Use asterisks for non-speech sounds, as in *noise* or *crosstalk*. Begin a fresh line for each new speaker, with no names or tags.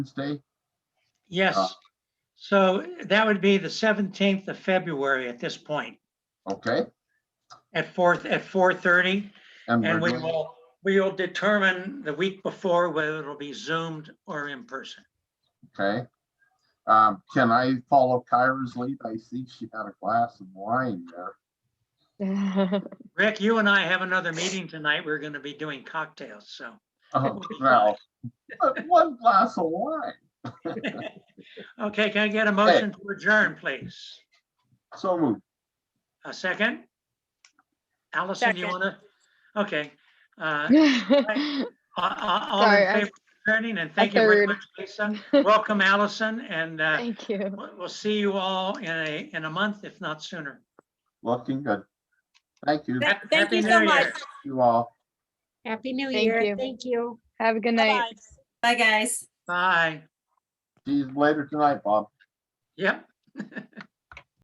Wednesday? Uh,
Yes. So that would be the 17th of February at this point,
Okay?
at 4, at 4:30.
we're
And we
doing-
will, we will determine the week before whether it'll be zoomed or in person.
Okay. Um, can I follow Kyra's lead? I see she had a glass of wine
*laughs*
there.
*laughs*
Rick, you and I have another meeting tonight. We're going to be doing cocktails, so.
Oh,
will be fine.
well, but one glass of wine.
Okay, can I get a motion to adjourn, please?
So moved.
A second? Allison, you
Second.
want to? Okay. Uh,
Thank
a- a- All
Sorry,
in
I-
favor of adjourning, and thank you very
third.
much, Lisa. Welcome, Allison, and uh,
you.
We'll we'll see you all in a, in a month, if not sooner.
Looking good. Thank you,
Thank- Thank
Happy
you so
New
much.
Year.
you all.
Happy New
Thank
Year.
you.
Thank you.
Have a good night.
Bye-bye. Bye, guys.
Bye.
See you later tonight, Bob.
Yep.